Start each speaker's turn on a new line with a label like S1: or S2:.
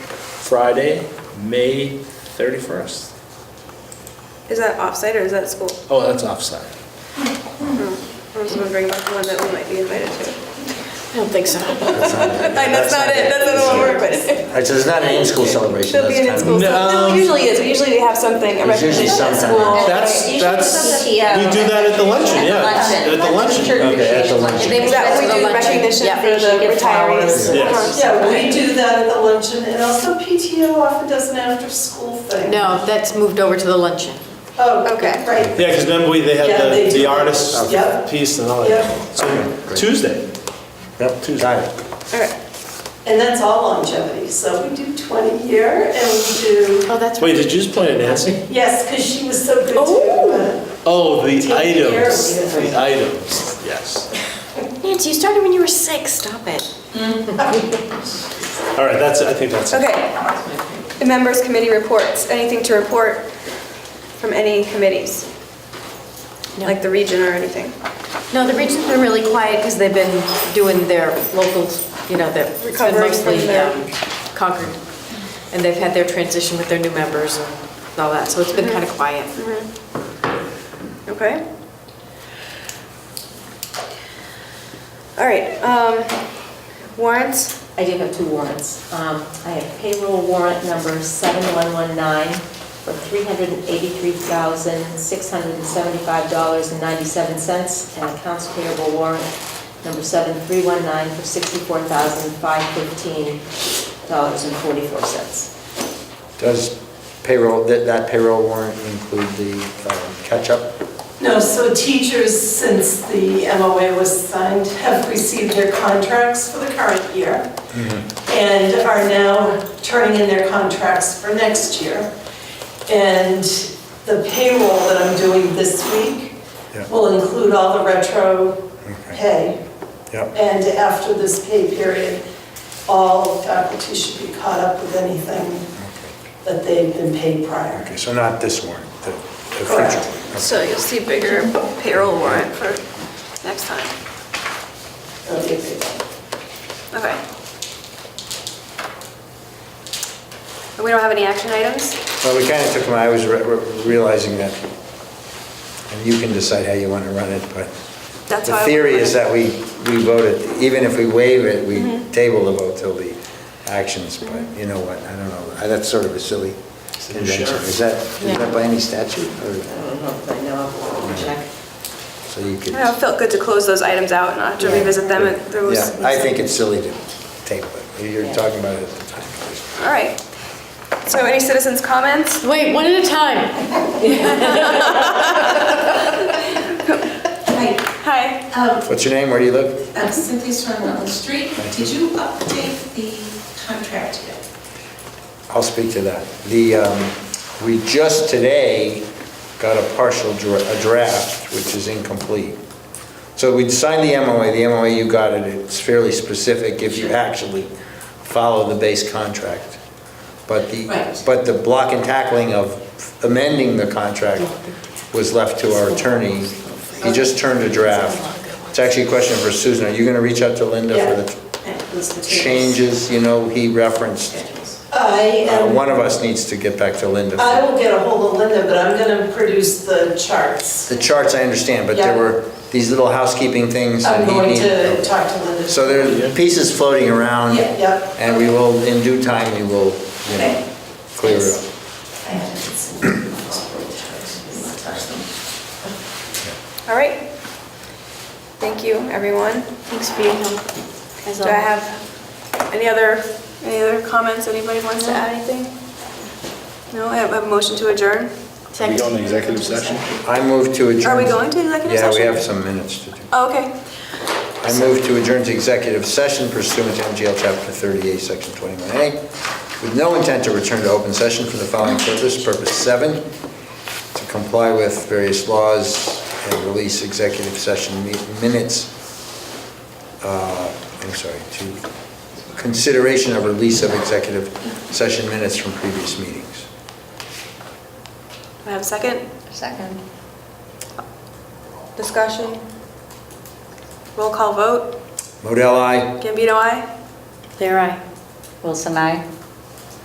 S1: Friday, May 31st.
S2: Is that offsite or is that school?
S1: Oh, that's offside.
S2: I was wondering about the one that we might be invited to.
S3: I don't think so.
S4: That's not it.
S2: Like, that's not it, that's not what we're, but
S4: All right, so it's not an in-school celebration.
S2: there'll be an
S4: That's kind
S2: in-school, no,
S4: of-
S2: it usually is, usually we have something, a
S4: There's usually
S2: recognition at
S4: something.
S2: school.
S1: That's,
S5: Usually
S1: that's,
S5: it's
S1: we do
S5: at the, uh,
S1: that at the luncheon,
S5: at the
S1: yeah.
S5: luncheon.
S1: At the luncheon.
S4: Okay, at the luncheon.
S5: They
S2: Is that
S5: move
S2: what we do,
S5: it to the luncheon.
S2: recognition
S5: Yeah,
S2: for
S5: they
S2: the
S5: should give flowers.
S2: retirees?
S1: Yes.
S2: Uh-huh.
S6: Yeah, we do that at the luncheon, and also PTO often does an after-school thing.
S3: No, that's moved over to the luncheon.
S6: Oh,
S2: Okay.
S6: right.
S1: Yeah, because remember, we- they
S6: Yeah,
S1: had
S6: they
S1: the, the
S6: do.
S1: artist
S6: Yep.
S1: piece and all
S6: Yep.
S1: that. So
S4: great.
S1: Tuesday.
S4: Yep, got it.
S2: Alright,
S6: And that's all longevity, so we do 20 year, and we do,
S3: Oh, that's
S1: Wait,
S3: right.
S1: did you just point at Nancy?
S6: yes, because she was so good
S2: Oh.
S6: too.
S1: Oh, the
S6: Take care
S1: items,
S6: of you.
S1: the items, yes.
S3: Nancy, you started when you were six, stop it.
S1: All right, that's, it. I think that's it.
S2: okay. The members' committee reports, anything to report from any committees?
S3: No.
S2: Like the region or anything?
S3: No, the region's been really quiet because they've been doing their locals, you know, their, it's been
S2: Recovering from
S3: mostly
S2: their-
S3: um, Concord. And they've had their transition with their new members and all that, so it's been kind of quiet.
S2: Mm-hmm. Okay. Alright, um, warrants?
S5: I do have two warrants. Um, I have payroll warrant number 7119 for $383,675.97 and accounts payable warrant number 7319 for $64,515.44.
S4: Does payroll, that that payroll warrant include the um, catch-up?
S6: No, so teachers, since the MOA was signed, have received their contracts for the current year
S4: Mm-hmm.
S6: and are now turning in their contracts for next year. And the payroll that I'm doing this week
S4: Yeah.
S6: will include all the retro pay.
S4: Yep.
S6: And after this pay period, all faculty should be caught up with anything that they've been paid prior.
S4: Okay, so not this warrant, the the
S6: Correct.
S4: future. one.
S2: So you'll see bigger payroll warrant for next time.
S6: That'll be a big one.
S2: Okay. And we don't have any action items?
S4: Well, we kind of took, my- I was re- re- realizing that, and you can decide how you want to run it, but
S2: That's
S4: the
S2: how I
S4: theory
S2: would
S4: is
S2: run Mm-hmm.
S4: that we, we vote it, even if we waive it, we table the vote till the actions, but you know what, I don't know, I- that's sort of a silly convention. Is that, is that by any statute,
S5: I
S4: or,
S5: don't know if I know, I'll check.
S4: so
S2: I
S4: you could?
S2: don't know, it felt good to close those items out, and not have to revisit them at those.
S4: Yeah, I think it's silly to table it, you're talking about it at the time.
S2: All right. So any citizens' comments?
S3: Wait, one at a time.
S7: Hi,
S2: Hi.
S7: um,
S4: What's your name, where do you live?
S7: I'm Cynthia Swan Rutland Street. Did you update the contract yet?
S4: I'll speak to that. The, um, we just today got a partial dra- a draft, which is incomplete. So we'd signed the MOA, the MOA you got it, it's fairly specific if you actually follow the base contract. But the,
S7: Right.
S4: but the block and tackling of amending the contract was left to our attorney. He just turned a draft. It's actually a question for Susan, are you gonna reach out to Linda for the
S7: And it was the tables.
S4: changes, you know, he referenced?
S7: Schedules.
S6: I
S4: Uh,
S6: am
S4: One of us needs to get back to Linda.
S6: I
S4: for-
S6: will get a hold of Linda, but I'm gonna produce the charts.
S4: The charts, I understand, but there
S6: Yeah.
S4: were these little housekeeping things.
S6: I'm
S4: and he
S6: going
S4: needed-
S6: to talk to Linda.
S4: So there are pieces floating around.
S6: Yeah, yeah.
S4: And we will, in due time, we will, you know,
S7: Okay.
S4: clear it up.
S7: I haven't seen them. I'll touch them.
S2: All right. Thank you, everyone.
S3: Thanks for your help. as
S2: Do I
S3: always.
S2: have any other, any other comments? Anybody wants to add anything? No, I have a motion to adjourn.
S1: We go into executive session?
S4: I move to adjourn.
S2: Are we going to executive
S4: Yeah, we
S2: session?
S4: have some minutes to do.
S2: Oh, okay.
S4: I move to adjourn to executive session pursuant to MGL Chapter 38, Section 21A, with no intent to return to open session for the following purpose, purpose seven, to comply with various laws and release executive session mi- minutes, uh, I'm sorry, to consideration of release of executive session minutes from previous meetings.
S2: Do I have a second?
S5: Second.
S2: Discussion? Roll call vote?
S4: Modell, I.
S2: Gambino, aye?
S3: There I.
S5: Wilson, I.